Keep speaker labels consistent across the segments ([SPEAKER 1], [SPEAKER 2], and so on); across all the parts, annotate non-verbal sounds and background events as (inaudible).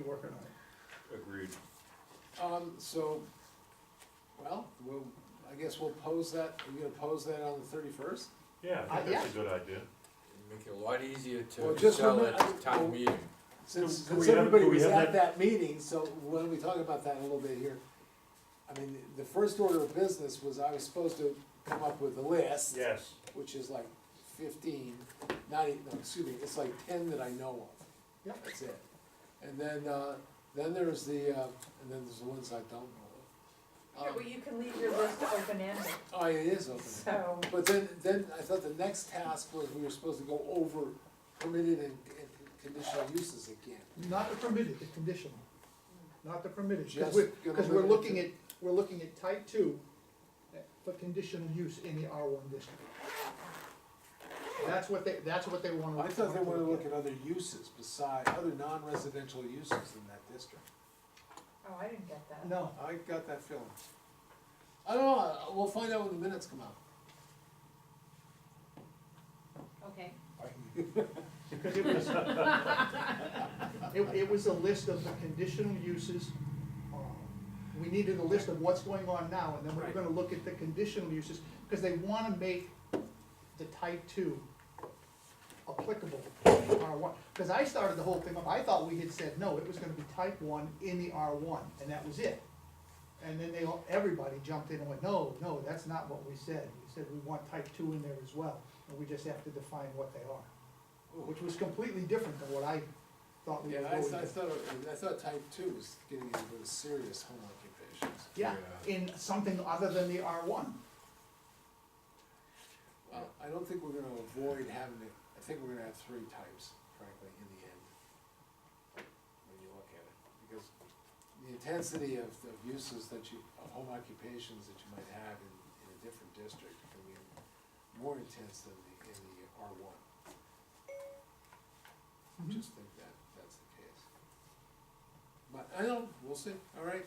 [SPEAKER 1] working on it.
[SPEAKER 2] Agreed.
[SPEAKER 3] Um, so, well, we'll, I guess we'll pose that, we're gonna pose that on the thirty-first?
[SPEAKER 2] Yeah, I
[SPEAKER 3] Uh,
[SPEAKER 2] think that's a good idea.
[SPEAKER 4] Make it a lot easier
[SPEAKER 3] Well,
[SPEAKER 4] to
[SPEAKER 3] just
[SPEAKER 4] sell
[SPEAKER 3] remember-
[SPEAKER 4] at the
[SPEAKER 3] well-
[SPEAKER 4] town meeting.
[SPEAKER 3] Since,
[SPEAKER 2] Can we
[SPEAKER 3] since
[SPEAKER 2] have-
[SPEAKER 3] everybody
[SPEAKER 2] can we
[SPEAKER 3] was
[SPEAKER 2] have
[SPEAKER 3] at that meeting, so why don't we talk about that a little bit here? I mean, the first order of business was I was supposed to come up with a list,
[SPEAKER 2] Yes.
[SPEAKER 3] which is like fifteen, not even, no, excuse me, it's like ten that I know of.
[SPEAKER 1] Yep.
[SPEAKER 3] That's it. And then, uh, then there's the, uh, and then there's the ones I don't know of.
[SPEAKER 5] Yeah,
[SPEAKER 3] Um,
[SPEAKER 5] well, you can leave your list open-ended,
[SPEAKER 3] Oh, it is open.
[SPEAKER 5] so,
[SPEAKER 3] But then, then I thought the next task was we were supposed to go over permitted and, and conditional uses again.
[SPEAKER 1] Not the permitted, the conditional, not the permitted,
[SPEAKER 3] Just
[SPEAKER 1] because we're,
[SPEAKER 3] gonna
[SPEAKER 1] because we're
[SPEAKER 3] limit it
[SPEAKER 1] looking
[SPEAKER 3] to-
[SPEAKER 1] at, we're looking at type two uh, for conditional use in the R one district. That's what they, that's what they wanna.
[SPEAKER 3] I thought they wanted to look at other uses beside, other non-residential uses in that district.
[SPEAKER 5] oh, I didn't get that.
[SPEAKER 1] No,
[SPEAKER 3] I got that feeling. I don't know, I- we'll find out when the minutes come out.
[SPEAKER 5] Okay.
[SPEAKER 1] because it was, (laughs) it, it was a list of the conditional uses. um, We needed a list of what's going on now, and then we we're
[SPEAKER 3] Right.
[SPEAKER 1] gonna look at the conditional uses, because they wanna make the type two applicable to R one. Because I started the whole thing up, I thought we had said, no, it was gonna be type one in the R one, and that was it. And then they, all everybody jumped in and went, no, no, that's not what we said, we said we want type two in there as well, and we just have to define what they are which was completely different than what I thought we
[SPEAKER 3] Yeah,
[SPEAKER 1] were
[SPEAKER 3] I
[SPEAKER 1] going
[SPEAKER 3] thought, I
[SPEAKER 1] to.
[SPEAKER 3] thought, I thought type two was getting into the serious home occupations.
[SPEAKER 1] Yeah, in something other than the R one.
[SPEAKER 3] Well, I don't think we're gonna avoid having it, I think we're gonna have three types, frankly, in the end. When you look at it, because the intensity of, of uses that you, of home occupations that you might have in, in a different district can be more intense than the, in the R one. I just think that, that's the case. But, I don't, we'll see, all right,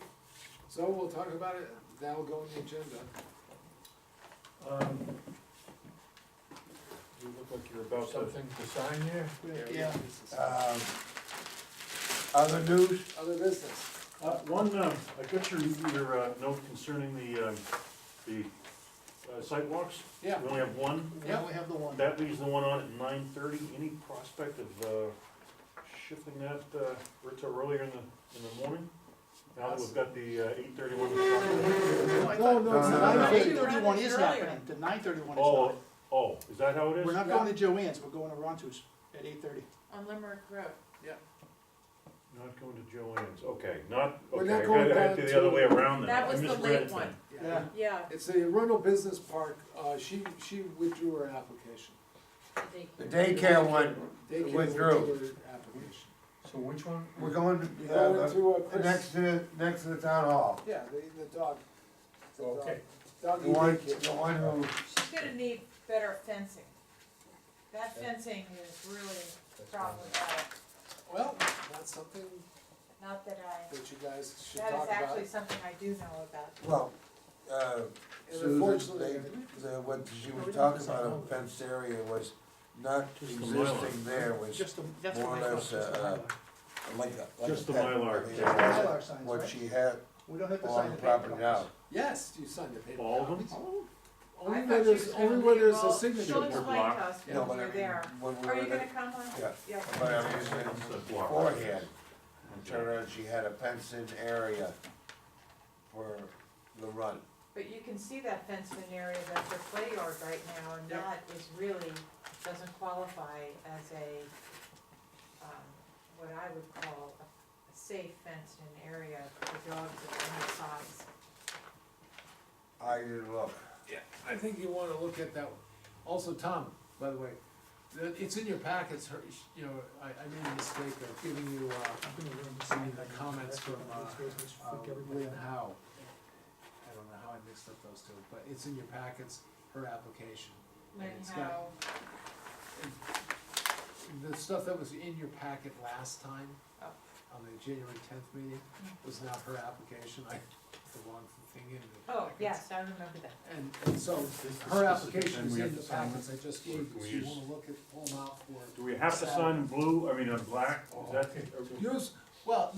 [SPEAKER 3] so we'll talk about it, that'll go on the agenda.
[SPEAKER 2] Um, You look like you're about to.
[SPEAKER 4] Something to sign here?
[SPEAKER 1] Yeah.
[SPEAKER 3] This is-
[SPEAKER 4] Um, Other news?
[SPEAKER 3] Other business.
[SPEAKER 2] Uh, one, um, I got your, your, uh, note concerning the, um, the uh, sidewalks.
[SPEAKER 3] Yeah.
[SPEAKER 2] We only have one.
[SPEAKER 1] We only have the one.
[SPEAKER 2] That leaves the one on at nine thirty. Any prospect of, uh, shifting that, uh, Rita earlier in the, in the morning? Now that we've got the, uh, eight thirty one.
[SPEAKER 3] No, no, it's
[SPEAKER 4] No, no,
[SPEAKER 3] not.
[SPEAKER 4] no, no.
[SPEAKER 1] Nine thirty-one is
[SPEAKER 5] Earlier.
[SPEAKER 1] happening, the nine thirty-one is
[SPEAKER 2] Oh,
[SPEAKER 1] not.
[SPEAKER 2] oh, is that how it is?
[SPEAKER 1] We're not going to Joanne's, we're going to Rontu's at eight thirty.
[SPEAKER 5] On Limerick Road.
[SPEAKER 2] Not going to Joanne's, okay, not,
[SPEAKER 3] We're
[SPEAKER 2] okay,
[SPEAKER 3] not
[SPEAKER 2] I
[SPEAKER 3] going
[SPEAKER 2] got
[SPEAKER 3] back
[SPEAKER 2] to
[SPEAKER 3] to-
[SPEAKER 2] the other way around then.
[SPEAKER 5] That
[SPEAKER 2] I
[SPEAKER 5] was the
[SPEAKER 2] misread
[SPEAKER 5] late
[SPEAKER 2] it
[SPEAKER 5] one.
[SPEAKER 2] then.
[SPEAKER 3] Yeah.
[SPEAKER 5] Yeah.
[SPEAKER 3] It's the Arundel Business Park, uh, she, she withdrew her application.
[SPEAKER 4] The daycare one,
[SPEAKER 3] Daycare
[SPEAKER 4] Withdrew.
[SPEAKER 3] her application.
[SPEAKER 4] So which one?
[SPEAKER 6] We're going to,
[SPEAKER 3] They
[SPEAKER 6] uh,
[SPEAKER 3] went
[SPEAKER 6] the-
[SPEAKER 3] to, uh,
[SPEAKER 6] the next
[SPEAKER 3] Chris,
[SPEAKER 6] to, the- next to the town hall.
[SPEAKER 3] yeah, the, the dog. the dog-
[SPEAKER 4] Okay.
[SPEAKER 6] The
[SPEAKER 3] Doggy
[SPEAKER 6] one,
[SPEAKER 3] daycare.
[SPEAKER 6] the one who,
[SPEAKER 5] She's gonna need better fencing. That fencing is really problematic,
[SPEAKER 3] Well, that's something
[SPEAKER 5] not that I,
[SPEAKER 3] that you guys should
[SPEAKER 5] that
[SPEAKER 3] talk
[SPEAKER 5] is
[SPEAKER 3] about.
[SPEAKER 5] actually something I do know about.
[SPEAKER 6] well, uh,
[SPEAKER 3] And
[SPEAKER 6] Susan,
[SPEAKER 3] unfortunately,
[SPEAKER 6] they, the, what she was talking about, a fenced area was not
[SPEAKER 2] Just the Mylar.
[SPEAKER 6] existing there, was
[SPEAKER 1] Just the, that's
[SPEAKER 6] More
[SPEAKER 1] what
[SPEAKER 6] or
[SPEAKER 1] I thought,
[SPEAKER 6] less,
[SPEAKER 1] just the
[SPEAKER 6] uh,
[SPEAKER 1] Mylar.
[SPEAKER 6] like a, like a.
[SPEAKER 2] Just the
[SPEAKER 6] pet.
[SPEAKER 2] Mylar,
[SPEAKER 6] I mean,
[SPEAKER 2] yeah.
[SPEAKER 6] it wasn't
[SPEAKER 1] Mylar signs,
[SPEAKER 6] What
[SPEAKER 1] right?
[SPEAKER 6] she had
[SPEAKER 1] We don't have to sign
[SPEAKER 6] on
[SPEAKER 1] the
[SPEAKER 6] the
[SPEAKER 1] paper
[SPEAKER 6] property now.
[SPEAKER 1] copies.
[SPEAKER 3] yes, you signed the paper.
[SPEAKER 2] All of them?
[SPEAKER 3] copies.
[SPEAKER 5] I
[SPEAKER 3] Only
[SPEAKER 5] thought
[SPEAKER 3] where
[SPEAKER 5] she
[SPEAKER 3] there's,
[SPEAKER 5] was gonna
[SPEAKER 3] only where
[SPEAKER 5] leave
[SPEAKER 3] there's
[SPEAKER 5] all-
[SPEAKER 3] a signature.
[SPEAKER 5] She'll
[SPEAKER 2] Or
[SPEAKER 5] explain
[SPEAKER 2] block.
[SPEAKER 5] to us
[SPEAKER 6] No,
[SPEAKER 5] when
[SPEAKER 6] but I
[SPEAKER 5] we're
[SPEAKER 6] mean,
[SPEAKER 5] there.
[SPEAKER 6] When we
[SPEAKER 5] Are
[SPEAKER 6] were
[SPEAKER 5] you gonna
[SPEAKER 6] there,
[SPEAKER 5] come on?
[SPEAKER 6] yeah,
[SPEAKER 5] Yeah.
[SPEAKER 6] but I mean, it's-
[SPEAKER 2] It's a block.
[SPEAKER 6] beforehand, turned around, she had a fenced in area for the run.
[SPEAKER 5] But you can see that fenced in area that's a play yard right now, and
[SPEAKER 3] Yep.
[SPEAKER 5] that is really, doesn't qualify as a, um, what I would call a a safe fenced in area for dogs of any size.
[SPEAKER 6] I didn't look.
[SPEAKER 3] Yeah, I think you wanna look at that one. Also, Tom, by the way, the- it's in your packets, her- you know, I, I made a mistake of giving you, uh,
[SPEAKER 1] I'm gonna learn to
[SPEAKER 3] some
[SPEAKER 1] sign
[SPEAKER 3] of the
[SPEAKER 1] that.
[SPEAKER 3] comments
[SPEAKER 1] That's what
[SPEAKER 3] from,
[SPEAKER 1] I was
[SPEAKER 3] uh,
[SPEAKER 1] gonna just
[SPEAKER 3] uh,
[SPEAKER 1] freak everybody
[SPEAKER 3] Lynn
[SPEAKER 1] out.
[SPEAKER 3] Howe. I don't know how I mixed up those two, but it's in your packets, her application.
[SPEAKER 5] Learn
[SPEAKER 3] It's got-
[SPEAKER 5] how,
[SPEAKER 3] The stuff that was in your packet last time,
[SPEAKER 5] Oh. Mm.
[SPEAKER 3] on the January tenth meeting, was not her application, I, put the wrong thing in the
[SPEAKER 5] oh,
[SPEAKER 3] packets.
[SPEAKER 5] yes, I remember that.
[SPEAKER 3] And, and so, her application is in the packets I just gave you, so you wanna look at, pull them out for. Oh,
[SPEAKER 2] Do we have to sign in blue, I mean, in black, is that?
[SPEAKER 3] Use, well,